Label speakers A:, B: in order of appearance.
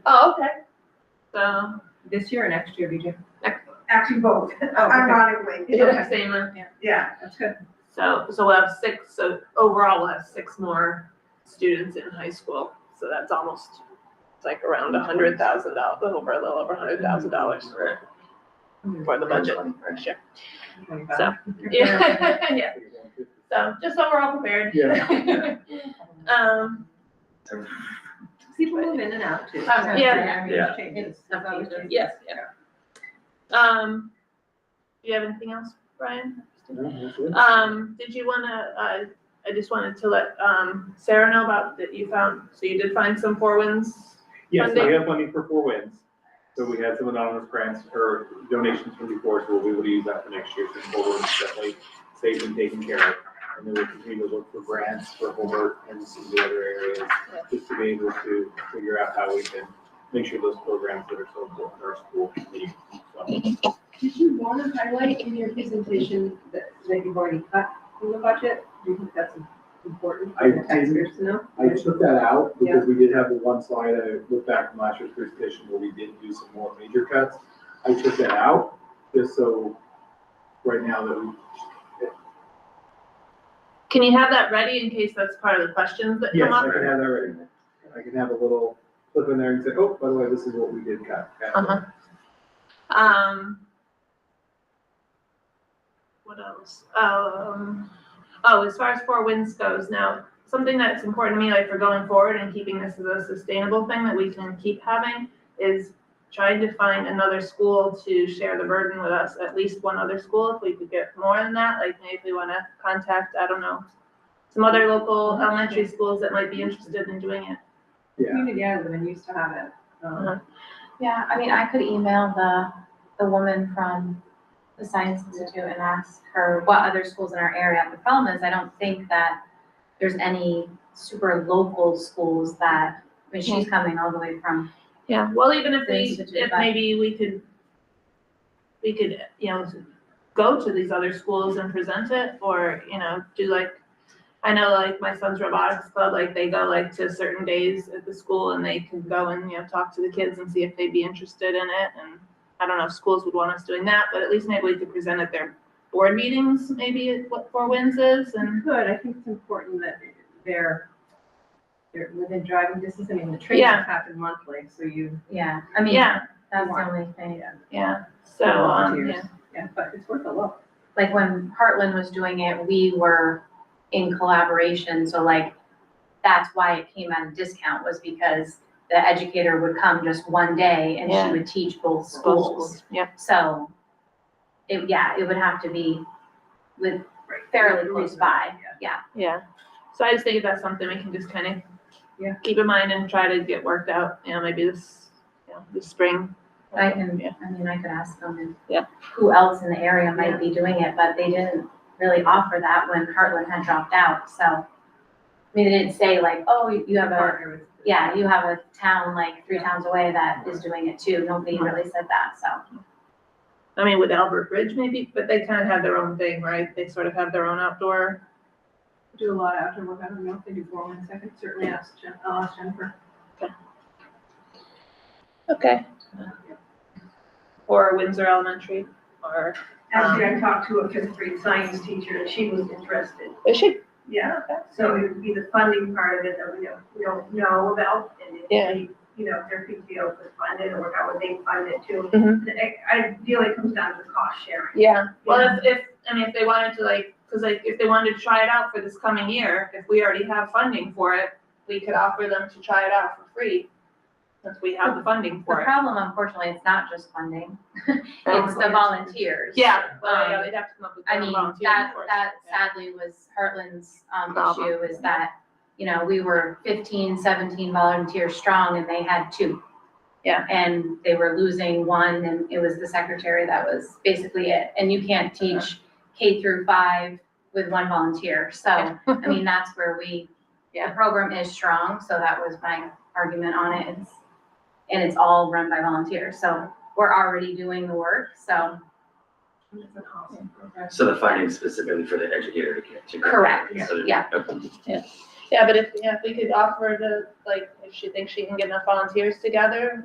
A: Okay,
B: so,
A: this year or next year, BJ?
B: next,
C: Actually, both,
A: Oh, okay.
C: ironically,
A: Yeah.
B: same, uh,
C: yeah.
A: That's good.
B: so, so we'll have six, so overall we'll have six more students in high school. So that's almost, it's like around a hundred thousand dollars, over, a little over a hundred thousand dollars for, for the budget next year. So, yeah, yeah, so just so we're all prepared.
D: Yeah.
B: Um,
A: People move in and out too.
B: Um, yeah.
D: Yeah.
A: Changes.
B: yes, yeah. Um, do you have anything else, Brian? Um, did you wanna, uh, I just wanted to let, um, Sarah know about that you found, so you did find some four winds?
D: Yes, we
B: Funding.
D: have funding for four wins. So we had some anonymous grants or donations from before, so we'll be able to use that for next year for four wins, definitely saved and taken care of. And then we'll continue to look for grants for homework and some of the other areas, just to be able to figure out how we can make sure those programs that are so important in our school continue. So,
A: Did you want to highlight in your presentation that, that you've already cut in the budget? Do you think that's important
E: I
A: for the
E: didn't.
A: taxpayers to know?
E: I took that out because we did have the one slide, I looked back from last year's presentation where we did do some more major cuts. I took that out just so right now that we,
B: Can you have that ready in case that's part of the questions that
E: yes,
B: come
E: I
B: up?
E: can have that ready. I can have a little flip in there and say, oh, by the way, this is what we did cut.
B: Uh-huh. Um. What else? Um, oh, as far as Four Winds goes now, something that's important to me, like for going forward and keeping this as a sustainable thing that we can keep having is trying to find another school to share the burden with us, at least one other school, if we could get more than that, like maybe we wanna contact, I don't know, some other local elementary schools that might be interested in doing it.
E: Yeah,
A: Community Island used to have it.
B: Uh-huh.
A: um,
F: Yeah, I mean, I could email the, the woman from the Science Institute and ask her what other schools in our area. The problem is, I don't think that there's any super local schools that, I mean, she's coming all the way from,
B: Yeah, well, even if we,
F: Things to do,
B: if
F: but-
B: maybe we could, we could, you know, go to these other schools and present it, or, you know, do like, I know like my son's robotics club, like they go like to certain days at the school and they can go and, you know, talk to the kids and see if they'd be interested in it, and I don't know if schools would want us doing that, but at least maybe we could present at their board meetings, maybe at what Four Winds is, and
A: Good, I think it's important that they're, they're within driving distance, I mean, the trainings
B: Yeah.
A: happen monthly, so you.
F: yeah, I mean,
B: Yeah.
F: that's the only thing.
B: yeah, so, um, yeah.
A: volunteers. Yeah, but it's worth a look.
F: Like when Heartland was doing it, we were in collaboration, so like, that's why it came at a discount, was because the educator would come just one day and
B: Yeah.
F: she would teach both
B: both
F: schools.
B: Yeah,
F: So, it, yeah, it would have to be with
A: Right.
F: fairly close by, yeah.
B: yeah, so I just think that's something we can just kind of
A: Yeah.
B: keep in mind and try to get worked out, you know, maybe this, you know, this spring.
F: I can,
B: Yeah.
F: I mean, I could ask them and
B: Yeah.
F: who else in the area might be doing it, but they didn't really offer that when Heartland had dropped out, so. I mean, they didn't say like, oh, you you have a,
A: Partner with-
F: yeah, you have a town like three towns away that is doing it too, nobody really said that, so.
B: I mean, with Albert Bridge maybe, but they kind of have their own thing, right? They sort of have their own outdoor.
A: Do a lot of outdoor work, I don't know if they do four one second, certainly ask Jen, I'll ask Jennifer.
B: Okay. Or Windsor Elementary, or,
C: Actually,
A: Um,
C: I talked to a fifth grade science teacher and she was interested.
B: they should,
C: Yeah, so it would be the funding part of it that we don't, we don't know about and if
B: Yeah.
C: they, you know, if their PTO could fund it or how would they fund it too.
A: Mm-hmm.
B: Mhm.
C: The- I Ideally, it comes down to cost sharing.
B: yeah. Well, if, if, I mean, if they wanted to like, because like, if they wanted to try it out for this coming year, if we already have funding for it, we could offer them to try it out for free, since we have the funding
F: The
B: for it.
F: problem unfortunately, it's not just funding, it's the volunteers.
B: Yeah, well,
F: Um,
B: yeah, they'd have to come up with
F: I
B: their
F: mean,
B: own volunteer,
F: that,
B: of course.
F: that
B: Yeah.
F: sadly was Heartland's, um, issue
B: Problem.
F: is that, you know, we were 15, 17 volunteers strong and they had two.
B: Yeah.
F: And they were losing one and it was the secretary that was basically it. And you can't
B: Uh-huh.
F: teach K through five with one volunteer. So, I mean, that's where we, the
B: Yeah.
F: program is strong, so that was my argument on it. It's- And it's all run by volunteers, so we're already doing the work, so.
C: It's an awesome program.
G: So the funding specifically for the educator to get to. go.
F: Correct,
G: Instead of-
F: yeah.
G: Okay.
B: Yeah, but if, yeah, if we could offer to, like, if she thinks she can get enough volunteers together,